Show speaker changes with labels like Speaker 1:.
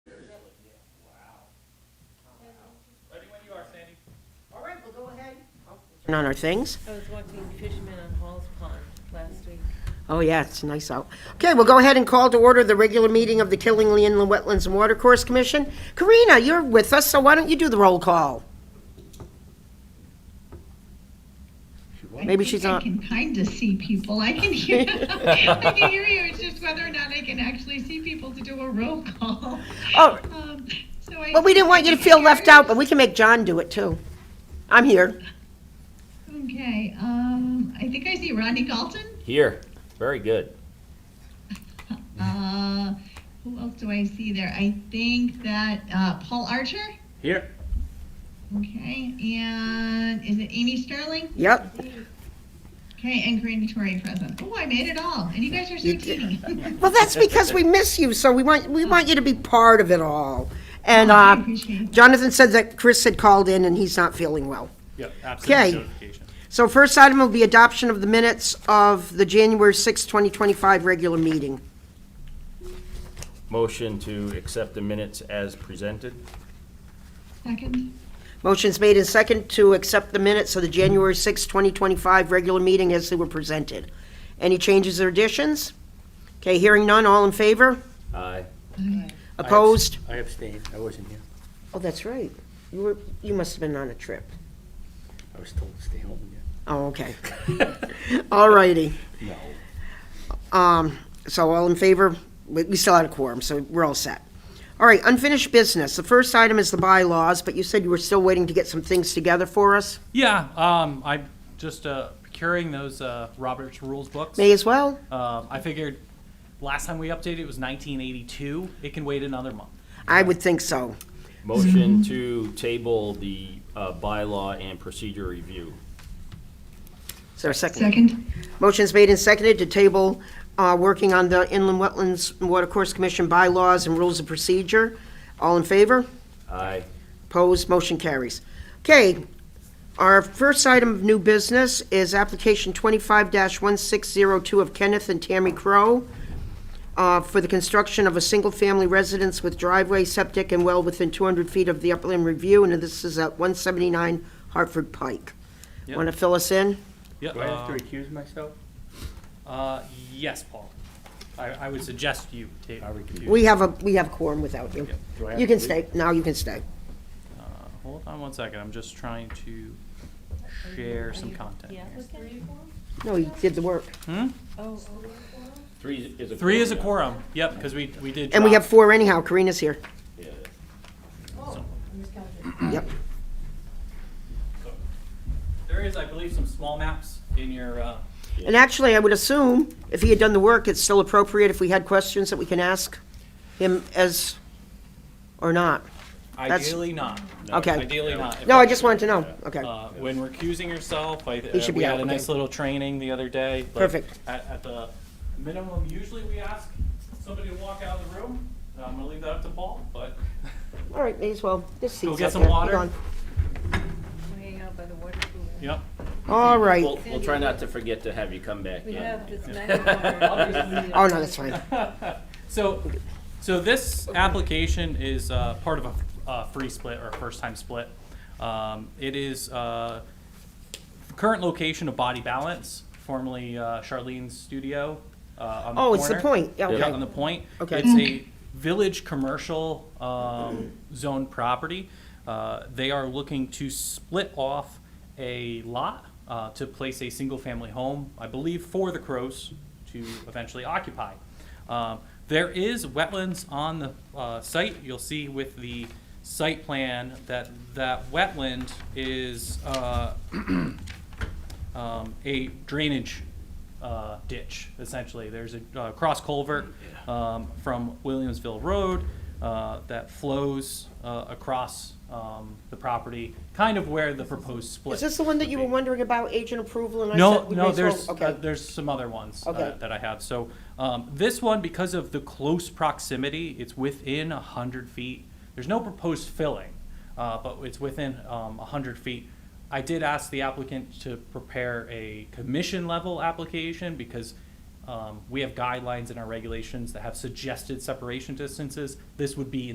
Speaker 1: putting on our things.
Speaker 2: I was watching fishermen on Hall's Pond last week.
Speaker 1: Oh, yeah, it's nice out. Okay, we'll go ahead and call to order the regular meeting of the Killingly Inland Wetlands and Watercourse Commission. Karina, you're with us, so why don't you do the roll call?
Speaker 3: I
Speaker 1: Maybe
Speaker 3: think
Speaker 1: she's
Speaker 3: I
Speaker 1: not-
Speaker 3: can kind of see people. I can hear. I can hear you. It's just whether or not I can actually see people to do a roll call.
Speaker 1: Oh,
Speaker 3: Um, so I,
Speaker 1: well, we didn't want you to feel left out, but we can make John do it, too. I'm here.
Speaker 3: Okay. Um, I think I see Rodney Galton.
Speaker 4: Here. Very good.
Speaker 3: Uh, who else do I see there? I think that uh, Paul Archer.
Speaker 4: Here.
Speaker 3: Okay, and is it Amy Sterling?
Speaker 1: Yep.
Speaker 3: Okay, and Corinne Torrey present. Oh, I made it all, and you guys are so
Speaker 1: You
Speaker 3: teeny.
Speaker 1: Well, that's because we miss you, so we want, we want you to be part of it all. And
Speaker 3: Oh, I
Speaker 1: uh,
Speaker 3: appreciate it.
Speaker 1: Jonathan said that Chris had called in and he's not feeling well.
Speaker 5: Yep,
Speaker 1: Okay.
Speaker 5: absolutely notification.
Speaker 1: So first item will be adoption of the minutes of the January sixth, 2025 regular meeting.
Speaker 4: Motion to accept the minutes as presented.
Speaker 3: Second,
Speaker 1: Motion's made in second to accept the minutes of the January sixth, 2025 regular meeting as they were presented. Any changes or additions? Okay, hearing none, all in favor?
Speaker 4: Aye.
Speaker 1: Opposed?
Speaker 6: I abstained, I wasn't here.
Speaker 1: Oh, that's right. You were, you must have been on a trip.
Speaker 6: I was told to stay home, yeah.
Speaker 1: Oh, okay. All righty.
Speaker 6: No.
Speaker 1: Um, so all in favor? We, we still had a quorum, so we're all set. All right, unfinished business. The first item is the bylaws, but you said you were still waiting to get some things together for us.
Speaker 5: Yeah, um, I'm just uh, procuring those uh, Robert's Rules books.
Speaker 1: May as well.
Speaker 5: Um, I figured last time we updated it was 1982. It can wait another month.
Speaker 1: I would think so.
Speaker 5: Mm-hmm.
Speaker 4: Motion to table the uh, bylaw and procedure review.
Speaker 1: Is there a second?
Speaker 3: second,
Speaker 1: Motion's made and seconded to table, uh, working on the Inland Wetlands and Watercourse Commission bylaws and rules of procedure. All in favor?
Speaker 4: Aye.
Speaker 1: Opposed, motion carries. Okay, our first item of new business is application 25-1602 of Kenneth and Tammy Crow uh, for the construction of a single-family residence with driveway, septic, and well within 200 feet of the upland review, and this is at 179 Hartford Pike.
Speaker 5: Yep.
Speaker 1: Want to fill us in?
Speaker 5: Yep.
Speaker 6: Do I have
Speaker 5: Uh,
Speaker 6: to recuse myself?
Speaker 5: uh, yes, Paul. I, I would suggest you take.
Speaker 6: I recuse.
Speaker 1: We have a, we have quorum without you.
Speaker 6: Do I have
Speaker 1: You can
Speaker 6: to leave?
Speaker 1: stay, now you can stay.
Speaker 5: Uh, hold on one second. I'm just trying to share some content.
Speaker 2: Yeah, was three or four?
Speaker 1: No, you did the work.
Speaker 2: Oh,
Speaker 4: Three is a.
Speaker 5: Three is a quorum. Yep, because we, we did.
Speaker 1: And we
Speaker 5: drop-
Speaker 1: have four anyhow, Karina's here. Yep.
Speaker 5: There is, I believe, some small maps in your. Uh,
Speaker 1: And actually, I would assume, if he had done the work, it's still appropriate if we had questions that we can ask him as, or not. That's-
Speaker 5: ideally not.
Speaker 1: Okay.
Speaker 5: Ideally not. If
Speaker 1: No, I
Speaker 5: that's-
Speaker 1: just wanted to know. Okay.
Speaker 5: Uh, When recusing yourself, I,
Speaker 1: He should
Speaker 5: uh,
Speaker 1: be
Speaker 5: we
Speaker 1: out,
Speaker 5: had a nice
Speaker 1: okay.
Speaker 5: little training the other day. like,
Speaker 1: Perfect.
Speaker 5: At, at the minimum, usually we ask somebody to walk out of the room. I'm gonna leave that up to Paul, but
Speaker 1: All right, may as well. This seat's
Speaker 5: Go get
Speaker 1: up
Speaker 5: some
Speaker 1: there.
Speaker 5: water.
Speaker 1: Hold
Speaker 2: way out by the water cooler.
Speaker 5: yep.
Speaker 1: on. All right.
Speaker 4: We'll, we'll try not to forget to have you come back
Speaker 2: We
Speaker 4: in.
Speaker 2: have this magic water.
Speaker 1: Oh, no, that's fine.
Speaker 5: So, so this application is uh, part of a uh, free split or a first-time split. Um, It is uh, current location of Body Balance, formerly uh, Charlene's Studio uh, on the
Speaker 1: Oh, it's the
Speaker 5: corner.
Speaker 1: point. Yeah,
Speaker 5: Yeah,
Speaker 1: okay.
Speaker 5: on the point.
Speaker 1: Okay.
Speaker 5: It's a village commercial um, zone property. Uh, They are looking to split off a lot uh, to place a single-family home, I believe, for the Crows to eventually occupy. Um, There is wetlands on the uh, site. You'll see with the site plan that that wetland is uh, um, a drainage uh, ditch, essentially. There's a uh, cross culvert um, from Williamsville Road uh, that flows uh, across um, the property, kind of where the proposed split.
Speaker 1: Is this the one that you were
Speaker 5: would be.
Speaker 1: wondering about agent approval and I
Speaker 5: No,
Speaker 1: said? we may
Speaker 5: no,
Speaker 1: as well-
Speaker 5: there's, uh,
Speaker 1: Okay.
Speaker 5: there's some other ones uh,
Speaker 1: Okay.
Speaker 5: that I have. So um, this one, because of the close proximity, it's within 100 feet. There's no proposed filling, uh, but it's within um, 100 feet. I did ask the applicant to prepare a commission-level application because um, we have guidelines in our regulations that have suggested separation distances. This would be